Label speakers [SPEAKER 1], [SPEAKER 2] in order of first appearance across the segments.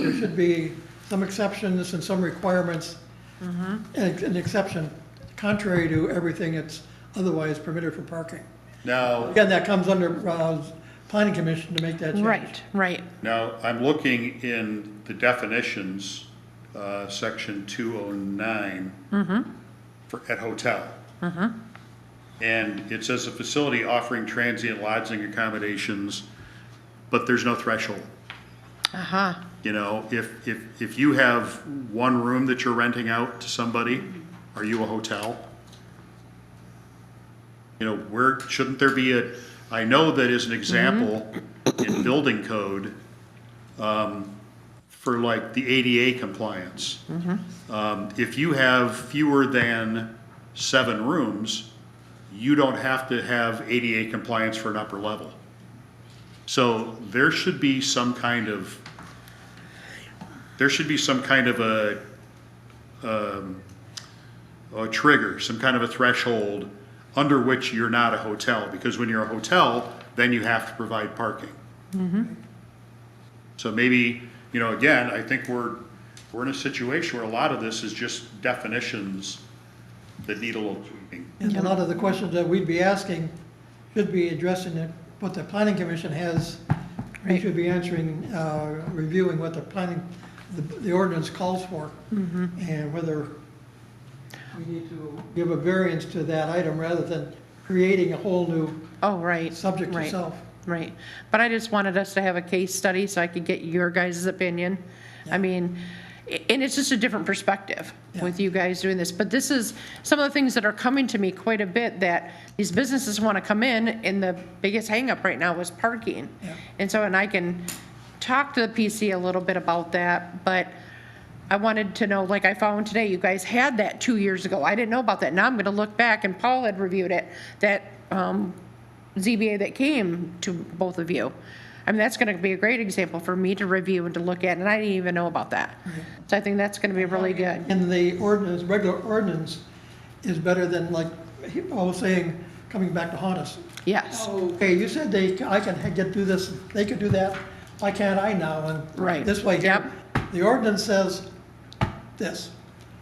[SPEAKER 1] there should be some exceptions and some requirements,
[SPEAKER 2] Mm-hmm.
[SPEAKER 1] and an exception contrary to everything that's otherwise permitted for parking.
[SPEAKER 3] Now,
[SPEAKER 1] Again, that comes under, uh, planning commission to make that change.
[SPEAKER 2] Right, right.
[SPEAKER 3] now, I'm looking in the definitions, uh, section 209. For, at hotel. And it says a facility offering transient lodging accommodations, but there's no threshold.
[SPEAKER 2] Uh-huh.
[SPEAKER 3] You know, if, if, if you have one room that you're renting out to somebody, are you a hotel? You know, where, shouldn't there be a, I know that as an example, in building code, um, for like the ADA compliance. Um, if you have fewer than seven rooms, you don't have to have ADA compliance for an upper level. So there should be some kind of there should be some kind of a, um, a trigger, some kind of a threshold under which you're not a hotel, because when you're a hotel, then you have to provide parking. So maybe, you know, again, I think we're, we're in a situation where a lot of this is just definitions that need a little tweaking.
[SPEAKER 1] And a lot of the questions that we'd be asking should be addressing it- what the planning commission has. We
[SPEAKER 2] Right.
[SPEAKER 1] should be answering, uh, reviewing what the planning, the the ordinance calls for.
[SPEAKER 2] Mm-hmm.
[SPEAKER 1] And whether we need to give a variance to that item rather than creating a whole new
[SPEAKER 2] Oh, right.
[SPEAKER 1] subject
[SPEAKER 2] right,
[SPEAKER 1] itself.
[SPEAKER 2] Right. But I just wanted us to have a case study so I could get your guys' opinion. I mean, a- and it's just a different perspective with you guys doing this. But this is some of the things that are coming to me quite a bit that these businesses want to come in and the biggest hangup right now is parking.
[SPEAKER 1] Yeah.
[SPEAKER 2] And so, and I can talk to the PC a little bit about that, but I wanted to know, like I found today, you guys had that two years ago. I didn't know about that. Now I'm gonna look back, and Paul had reviewed it, that, um, ZBA that came to both of you. I mean, that's gonna be a great example for me to review and to look at, and I didn't even know about that. So I think that's gonna be really good.
[SPEAKER 1] And the ordinance, regular ordinance is better than like, he- Paul was saying, coming back to haunt us.
[SPEAKER 2] Yes,
[SPEAKER 1] Okay, you said they, I can get, do this, they could do that, why can't I now? And
[SPEAKER 2] Right.
[SPEAKER 1] This way here. The ordinance says this,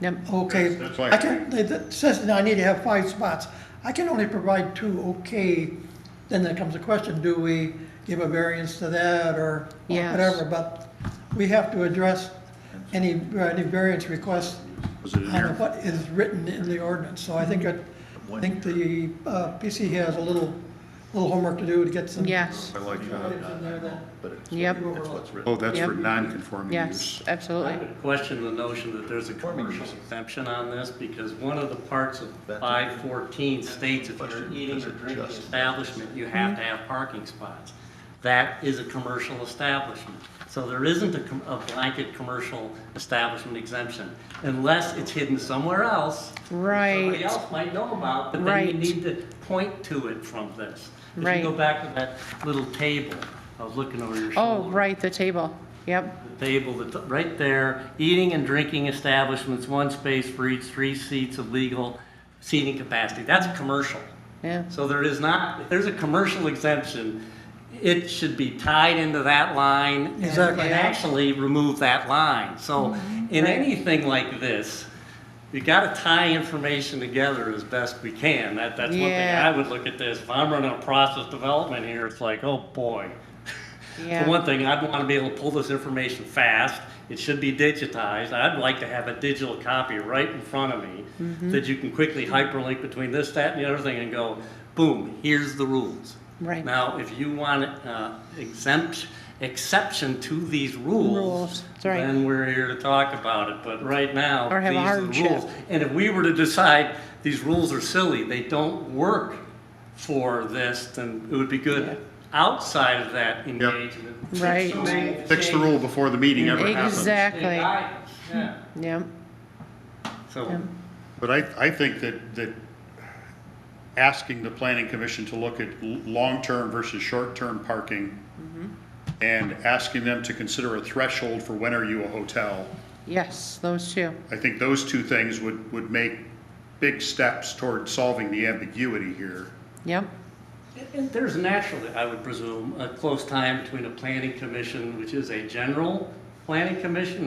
[SPEAKER 2] Yep.
[SPEAKER 1] okay.
[SPEAKER 3] That's- that's why-
[SPEAKER 1] I can, it it says that I need to have five spots. I can only provide two, okay. Then there comes the question, do we give a variance to that or
[SPEAKER 2] Yes.
[SPEAKER 1] whatever? But we have to address any, uh, any variance requests
[SPEAKER 3] Was it in
[SPEAKER 1] on
[SPEAKER 3] here?
[SPEAKER 1] what is written in the ordinance. So I think, it- I think the uh, PC has a little, little homework to do to get some.
[SPEAKER 2] yes,
[SPEAKER 3] I like
[SPEAKER 1] items
[SPEAKER 3] that.
[SPEAKER 1] in there that-
[SPEAKER 2] yep,
[SPEAKER 3] Oh, that's for
[SPEAKER 2] Yep.
[SPEAKER 3] non-conforming
[SPEAKER 2] yes,
[SPEAKER 3] use.
[SPEAKER 4] I
[SPEAKER 2] absolutely.
[SPEAKER 4] would question the notion that there's a commercial exemption on this, because one of the parts of five fourteen states if you're eating or drinking establishment, you
[SPEAKER 2] Mm-hmm.
[SPEAKER 4] have to have parking spots. That is a commercial establishment. So there isn't a com- a blanket commercial establishment exemption, unless it's hidden somewhere else. that
[SPEAKER 2] Right.
[SPEAKER 4] Somebody else might know about, but then you
[SPEAKER 2] Right.
[SPEAKER 4] need to point to it from this. If
[SPEAKER 2] Right.
[SPEAKER 4] you go back to that little table, I was looking over your shoulder
[SPEAKER 2] Oh, right, the table, yep,
[SPEAKER 4] the table that's right there, eating and drinking establishments, one space for each, three seats of legal seating capacity. That's commercial.
[SPEAKER 2] yeah,
[SPEAKER 4] So there is not, if there's a commercial exemption, it should be tied into that line. and-
[SPEAKER 1] Exactly.
[SPEAKER 4] And actually remove that line. So
[SPEAKER 2] Mm-hmm.
[SPEAKER 4] in anything like this, you gotta tie information together as best we can. That, that's one thing
[SPEAKER 2] Yeah.
[SPEAKER 4] I would look at this. If I'm running a process development here, it's like, oh, boy.
[SPEAKER 2] Yeah.
[SPEAKER 4] For one thing, I'd want to be able to pull this information fast. It should be digitized. I'd like to have a digital copy right in front of me
[SPEAKER 2] Mm-hmm.
[SPEAKER 4] that you can quickly hyperlink between this, that, and the other thing and go, boom, here's the rules.
[SPEAKER 2] Right.
[SPEAKER 4] Now, if you want uh, exempt, exception to these rules.
[SPEAKER 2] Rules, that's right.
[SPEAKER 4] Then we're here to talk about it, but right now.
[SPEAKER 2] Or have a
[SPEAKER 4] these are the
[SPEAKER 2] hardship.
[SPEAKER 4] rules. And if we were to decide these rules are silly, they don't work for this, then it would be good outside of that engagement.
[SPEAKER 2] Right.
[SPEAKER 4] So make
[SPEAKER 3] Fix the rule before the meeting ever happens.
[SPEAKER 4] change.
[SPEAKER 2] exactly,
[SPEAKER 4] Yeah.
[SPEAKER 2] yep.
[SPEAKER 4] So
[SPEAKER 3] But I, I think that, that asking the planning commission to look at l- long-term versus short-term parking
[SPEAKER 2] Mm-hmm.
[SPEAKER 3] and asking them to consider a threshold for when are you a hotel,
[SPEAKER 2] Yes, those two.
[SPEAKER 3] I think those two things would, would make big steps toward solving the ambiguity here.
[SPEAKER 2] Yep,
[SPEAKER 4] And there's naturally, I would presume, a close tie between a planning commission, which is a general Planning Commission